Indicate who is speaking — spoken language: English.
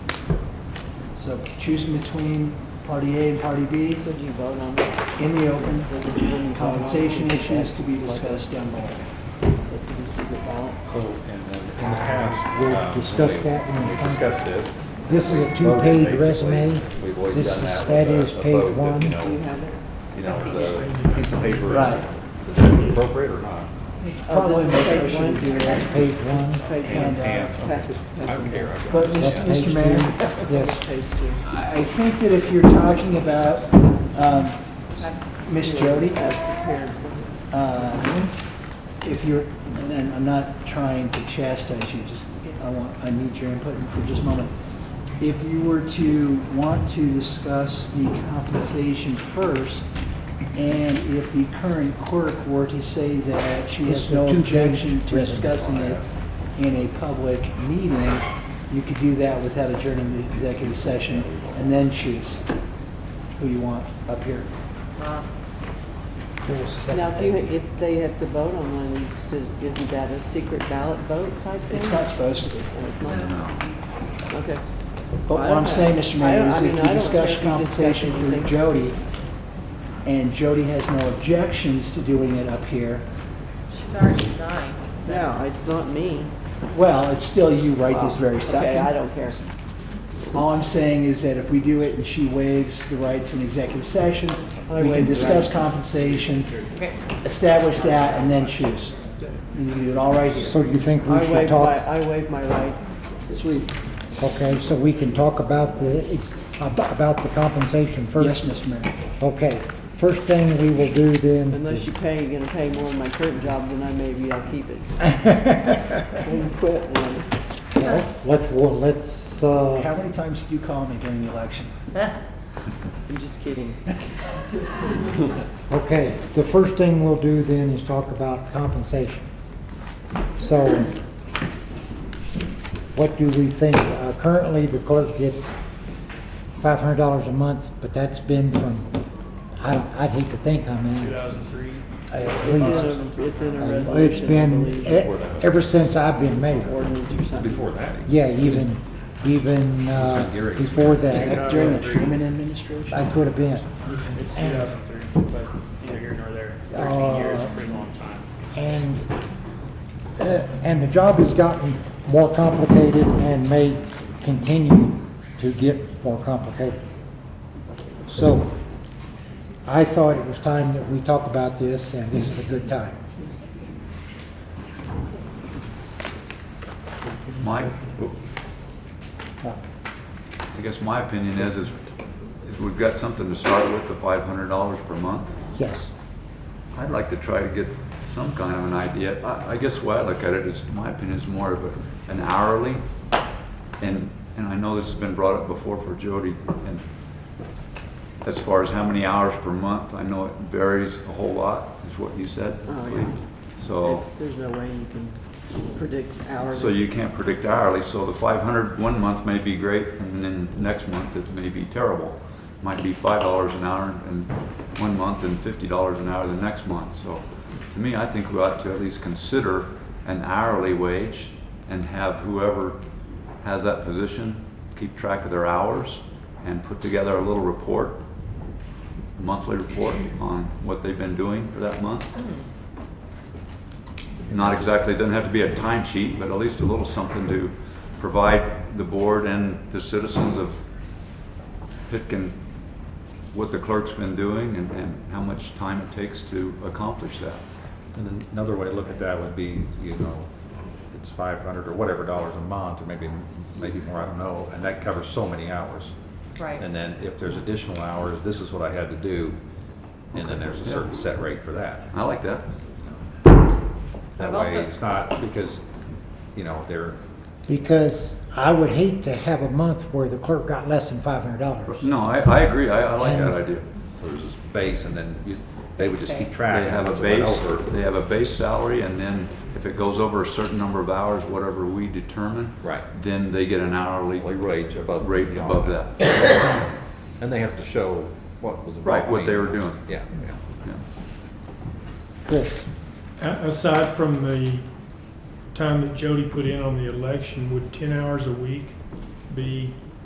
Speaker 1: So choosing between party A and party B
Speaker 2: So do you vote on it?
Speaker 1: in the open,
Speaker 2: Does it even vote on
Speaker 1: compensation
Speaker 2: it? Is it
Speaker 1: issues to be
Speaker 2: like a-
Speaker 1: discussed down the line.
Speaker 2: Just to be secret ballot?
Speaker 3: So, and then in the past.
Speaker 4: We'll
Speaker 3: um,
Speaker 4: discuss
Speaker 3: we-
Speaker 4: that when it
Speaker 3: We
Speaker 4: comes.
Speaker 3: discussed this.
Speaker 4: This is
Speaker 3: We
Speaker 4: a
Speaker 3: voted,
Speaker 4: two-page
Speaker 3: basically.
Speaker 4: resume.
Speaker 3: We've always
Speaker 4: This
Speaker 3: done
Speaker 4: is-
Speaker 3: with
Speaker 4: that
Speaker 3: a-
Speaker 4: is
Speaker 3: a
Speaker 4: page
Speaker 3: vote that, You
Speaker 4: one.
Speaker 2: Do you have
Speaker 3: know,
Speaker 2: it?
Speaker 3: you know, the piece of paper,
Speaker 1: Right.
Speaker 3: is it appropriate or not?
Speaker 1: Probably
Speaker 2: Oh,
Speaker 1: make
Speaker 2: this is
Speaker 1: a motion
Speaker 2: page
Speaker 1: to do
Speaker 2: one?
Speaker 1: that.
Speaker 4: Page one.
Speaker 2: Page
Speaker 3: And,
Speaker 2: one.
Speaker 1: uh,
Speaker 3: and-
Speaker 2: Pass uh, it,
Speaker 3: I
Speaker 2: pass
Speaker 3: don't
Speaker 2: it.
Speaker 3: care. I've got
Speaker 1: But
Speaker 3: it.
Speaker 1: Mr.
Speaker 4: That's page
Speaker 1: Mr.
Speaker 4: two.
Speaker 1: Mayor,
Speaker 4: Yes,
Speaker 2: Page two.
Speaker 1: I I think that if you're talking about um, Miss Jody,
Speaker 2: Uh, prepared.
Speaker 1: uh, if you're, and I'm- I'm not trying to chastise you, just, I want, I need your input for just a moment. If you were to want to discuss the compensation first, and if the current clerk were to say that she
Speaker 4: It's
Speaker 1: has
Speaker 4: the
Speaker 1: no
Speaker 4: two-page
Speaker 1: objection to
Speaker 4: resume.
Speaker 1: discussing it in a public meeting, you could do that without adjourning the executive session, and then choose who you want up here.
Speaker 4: there was a second.
Speaker 2: Now, if you, if they have to vote on one, is- isn't that a secret ballot vote type thing?
Speaker 1: It's not supposed to be.
Speaker 2: Oh, it's not? Okay.
Speaker 1: But what I'm saying, Mr.
Speaker 2: I
Speaker 1: Mayor,
Speaker 2: don't- I
Speaker 1: is if
Speaker 2: mean,
Speaker 1: you
Speaker 2: I
Speaker 1: discuss
Speaker 2: don't think we discussed
Speaker 1: compensation for
Speaker 2: anything.
Speaker 1: Jody, and Jody has no objections to doing it up here,
Speaker 5: She's already resigned.
Speaker 2: No, it's not me.
Speaker 1: well, it's still you right this very
Speaker 2: Okay, I
Speaker 1: second.
Speaker 2: don't care.
Speaker 1: All I'm saying is that if we do it and she waives the right to an executive session,
Speaker 2: I
Speaker 1: we can
Speaker 2: waive the
Speaker 1: discuss
Speaker 2: right.
Speaker 1: compensation,
Speaker 5: Okay.
Speaker 1: establish that, and then choose. And you can do it all right
Speaker 4: So
Speaker 1: here.
Speaker 4: do you think we
Speaker 2: I
Speaker 4: should
Speaker 2: waive my,
Speaker 4: talk,
Speaker 2: I waive my rights.
Speaker 1: Sweet.
Speaker 4: okay, so we can talk about the, ex- ab- about the compensation
Speaker 1: Yes,
Speaker 4: first?
Speaker 1: Mr. Mayor.
Speaker 4: Okay, first thing we will do then.
Speaker 2: Unless you pay, you're gonna pay more in my current job than I maybe I'll keep it. When you quit, and then-
Speaker 4: Well, Let's, well, let's, uh,
Speaker 1: How many times did you call me during the election?
Speaker 2: I'm just kidding.
Speaker 4: okay, the first thing we'll do then is talk about compensation. So what do we think? Uh, Currently, the clerk gets five hundred dollars a month, but that's been from, I, I'd hate to think how many. Two thousand three? At
Speaker 2: It's
Speaker 4: least.
Speaker 2: in a, it's in a
Speaker 4: Uh,
Speaker 2: resolution,
Speaker 4: It's
Speaker 2: I
Speaker 4: been,
Speaker 2: believe,
Speaker 4: e- ever since I've been mayor.
Speaker 2: ordinance or something.
Speaker 3: Before that. even.
Speaker 4: Yeah, even, even uh,
Speaker 3: It's been Gary's.
Speaker 4: before that,
Speaker 1: During the Truman administration?
Speaker 4: I could have been.
Speaker 6: It's 2003, but neither here nor there. 13 years is a pretty long time.
Speaker 4: And, uh, and the job has gotten more complicated and may continue to get more complicated. So I thought it was time that we talk about this, and this is a good time.
Speaker 7: My,
Speaker 4: Uh,
Speaker 7: I guess my opinion is, is is we've got something to start with, the five hundred dollars per month.
Speaker 4: Yes,
Speaker 7: I'd like to try to get some kind of an idea. I, I guess the way I look at it is, my opinion is more of a- an hourly. And, and I know this has been brought up before for Jody, and as far as how many hours per month, I know it varies a whole lot, is what you said.
Speaker 2: Oh, yeah.
Speaker 7: So,
Speaker 2: It's, there's no way you can predict hourly.
Speaker 7: so you can't predict hourly, so the 500 one month may be great, and then next month it may be terrible. Might be five dollars an hour and one month and fifty dollars an hour the next month, so to me, I think we ought to at least consider an hourly wage and have whoever has that position keep track of their hours and put together a little report, a monthly report on what they've been doing for that month not exactly, it doesn't have to be a timesheet, but at least a little something to provide the board and the citizens of Pitkin what the clerk's been doing and, and how much time it takes to accomplish that.
Speaker 3: And another way to look at that would be, you know, it's 500 or whatever dollars a month, or maybe, maybe more, I don't know, and that covers so many hours.
Speaker 5: Right.
Speaker 3: And then if there's additional hours, this is what I had to do, and then there's a certain set rate for that.
Speaker 7: I like that.
Speaker 3: That
Speaker 5: I've
Speaker 3: way,
Speaker 5: also-
Speaker 3: it's not, because, you know, they're,
Speaker 4: because I would hate to have a month where the clerk got less than five hundred dollars.
Speaker 7: No, I, I agree, I, I like that
Speaker 4: And-
Speaker 7: idea.
Speaker 3: so there's this base, and then you, they would just keep track.
Speaker 7: They
Speaker 3: of
Speaker 7: have a
Speaker 3: what's going
Speaker 7: base,
Speaker 3: over.
Speaker 7: they have a base salary, and then if it goes over a certain number of hours, whatever we determine.
Speaker 3: Right.
Speaker 7: Then they get an hourly
Speaker 3: Hourly rate above.
Speaker 7: rate
Speaker 3: and
Speaker 7: above
Speaker 3: beyond.
Speaker 7: that. Yeah.
Speaker 3: And they have to show what was. involved.
Speaker 7: Right, what they were
Speaker 3: I mean,
Speaker 7: doing.
Speaker 3: Yeah, yeah.
Speaker 4: Chris,
Speaker 8: A- Aside from the time that Jody put in on the election, would 10 hours a week be